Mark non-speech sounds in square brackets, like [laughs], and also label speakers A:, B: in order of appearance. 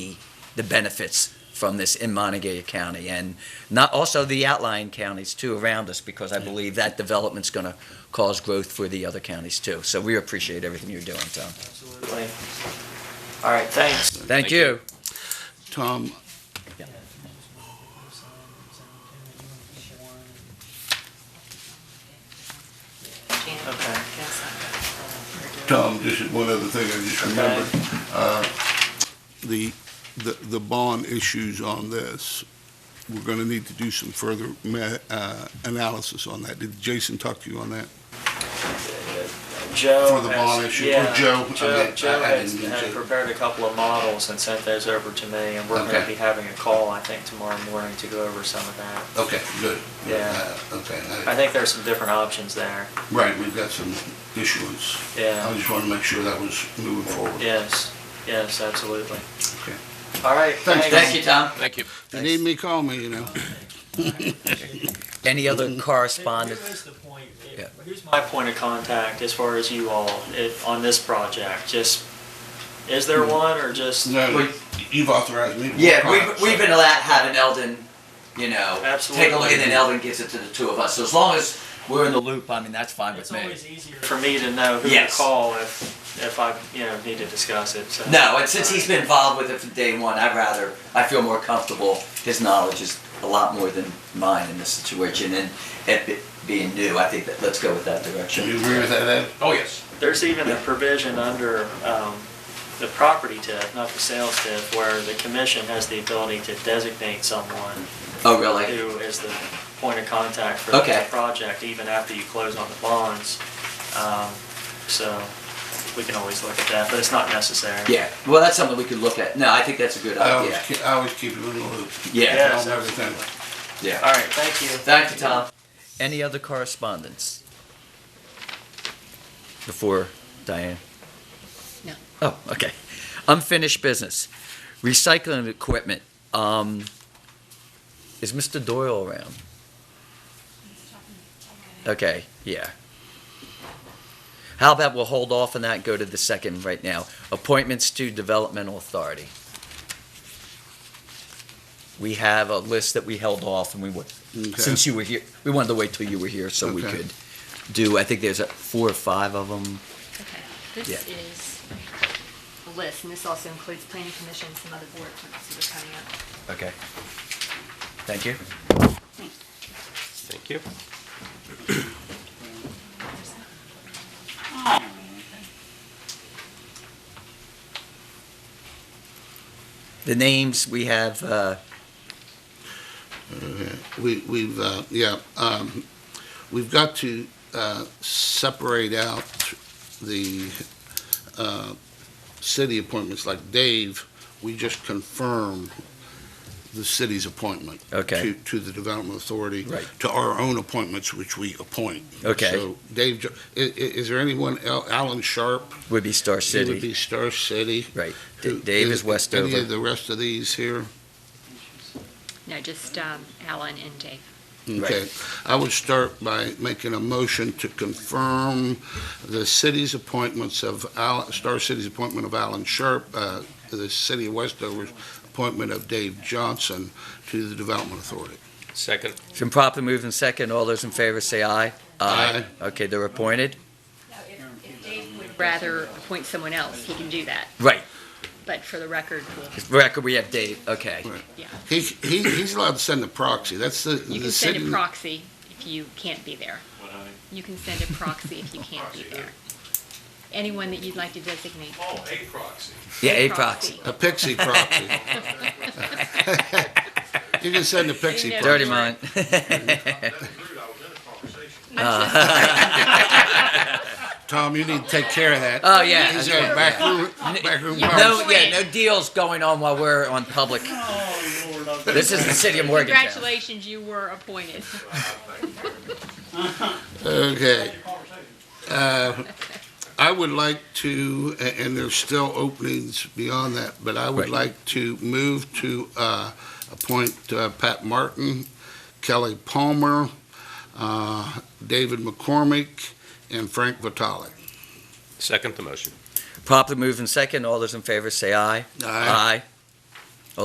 A: the benefits from this in Montague County and not, also the outlying counties too around us, because I believe that development's going to cause growth for the other counties too. So we appreciate everything you're doing, Tom.
B: Absolutely. All right, thanks.
A: Thank you.
C: Tom,
B: Okay.
C: Tom, just one other thing I just remembered. Uh, The, the, the bond issues on this, we're going to need to do some further ma- uh, analysis on that. Did Jason talk to you on that?
B: Joe
C: For the
B: has-
C: bond issue, or
B: yeah,
C: Joe, I
B: Joe,
C: mean,
B: Joe
C: I- I
B: has
C: didn't mean
B: had
C: to.
B: prepared a couple of models and sent those over to me, and we're going to
C: Okay.
B: be having a call, I think, tomorrow morning to go over some of that.
C: Okay, good.
B: Yeah.
C: Uh, Okay,
B: I think there's some different options there.
C: right, we've got some issuance. I
B: Yeah,
C: just want to make sure that was moving forward.
B: yes, yes, absolutely.
C: Okay.
B: All right,
C: Thanks,
A: Thank you, Tom.
D: Thank you.
C: If you need me, call me, you know. [laughs]
A: Any other correspondence?
B: Here's the point.
A: Yeah.
B: Here's my point of contact as far as you all, it, on this project, just, is there
A: Mm.
B: one or just?
C: No, you've authorized me. to
A: Yeah,
C: work on it,
A: we've,
C: so-
A: we've been allowed to have an Eldon, you know, take a look
B: Absolutely.
A: and then Eldon gives it to the two of us. So as long as we're in the loop, I mean, that's fine with
B: It's
A: me.
B: always easier for me to know who to
A: Yes.
B: call if, if I, you know, need to discuss it, so.
A: No, and since he's been involved with it from day one, I'd rather, I feel more comfortable. His knowledge is a lot more than mine in this situation, and it be- being new, I think that, let's go with that
C: Do
A: direction.
C: you agree with that, Ed?
D: Oh, yes.
B: There's even a provision under um, the property tip, not the sales tip, where the commission has the ability to designate someone
A: Oh, really?
B: who is the point of contact for the
A: Okay.
B: project, even after you close on the bonds. Um, So we can always look at that, but it's not necessary.
A: Yeah, well, that's something we could look at. No, I think that's a good
C: I always,
A: idea.
C: ke- I always keep it in the loop.
A: Yeah.
C: I
B: Yes,
C: don't have anything.
B: absolutely.
A: Yeah.
B: All right, thank you.
A: Thank you, Tom. Any other correspondence? Before Diane?
E: No.
A: Oh, okay. Unfinished business. Recycling equipment. Um, is Mr. Doyle around? Okay, yeah. How about we'll hold off on that and go to the second right now? Appointments to Developmental Authority. We have a list that we held off and we would,
C: Okay.
A: since you were here, we wanted to wait till you were here so we
C: Okay.
A: could do, I think there's uh, four or five of them.
E: Okay, this
A: Yeah.
E: is a list, and this also includes planning commission, some other board appointments that are coming up.
A: Okay. Thank you.
D: Thank you.
A: The names we have, uh,
C: We, we've, uh, yeah, um, we've got to, uh, separate out the, uh, city appointments, like Dave, we just confirm the city's appointment.
A: Okay.
C: To, to the Development Authority.
A: Right.
C: To our own appointments, which we appoint.
A: Okay.
C: So Dave, is, is there anyone, el- Alan Sharp?
A: would be Star
C: He would
A: City.
C: be Star City.
A: Right.
C: Who-
A: D- Dave is
C: Any of
A: Westover.
C: the rest of these here?
E: No, just um, Alan and Dave.
C: Okay, I would start by making a motion to confirm the city's appointments of, Al- Star City's appointment of Alan Sharp, uh, the city of Westover's appointment of Dave Johnson to the Development Authority.
D: Second.
A: It's been properly moved and second. All those in favor say aye. Okay, they're appointed.
E: If Dave would rather appoint someone else, he can do that,
A: Right.
E: but for the record, we'll-
A: Record, we have Dave. Okay.
C: Right.
E: yeah.
C: He, he, he's allowed to send a proxy, that's the,
E: You
C: the
E: can send
C: city.
E: a proxy if you can't be there. You can send a proxy if you can't be there. Anyone that you'd like to designate.
F: Oh, a proxy.
A: Yeah, a proxy.
C: A pixie
E: [laughs]
C: proxy. You can send a pixie
E: You
C: proxy.
E: know-
A: Dirty mind. [laughs]
F: That's rude, I was in a conversation.
A: Uh,
C: Tom, you need to take care of that.
A: Oh, yeah.
C: He's got a back room, back room
A: No,
C: policy.
A: yeah, no deals going on while we're on public. This is the city of Morgantown.
E: Congratulations, you were appointed.
C: Okay. Uh, I would like to, a- and there's still openings beyond that, but I would
A: Right.
C: like to move to uh, appoint uh, Pat Martin, Kelly Palmer, uh, David McCormick, and Frank Vitale.
D: Second the motion.
A: Properly moved and second. All those in favor say aye.
C: Aye.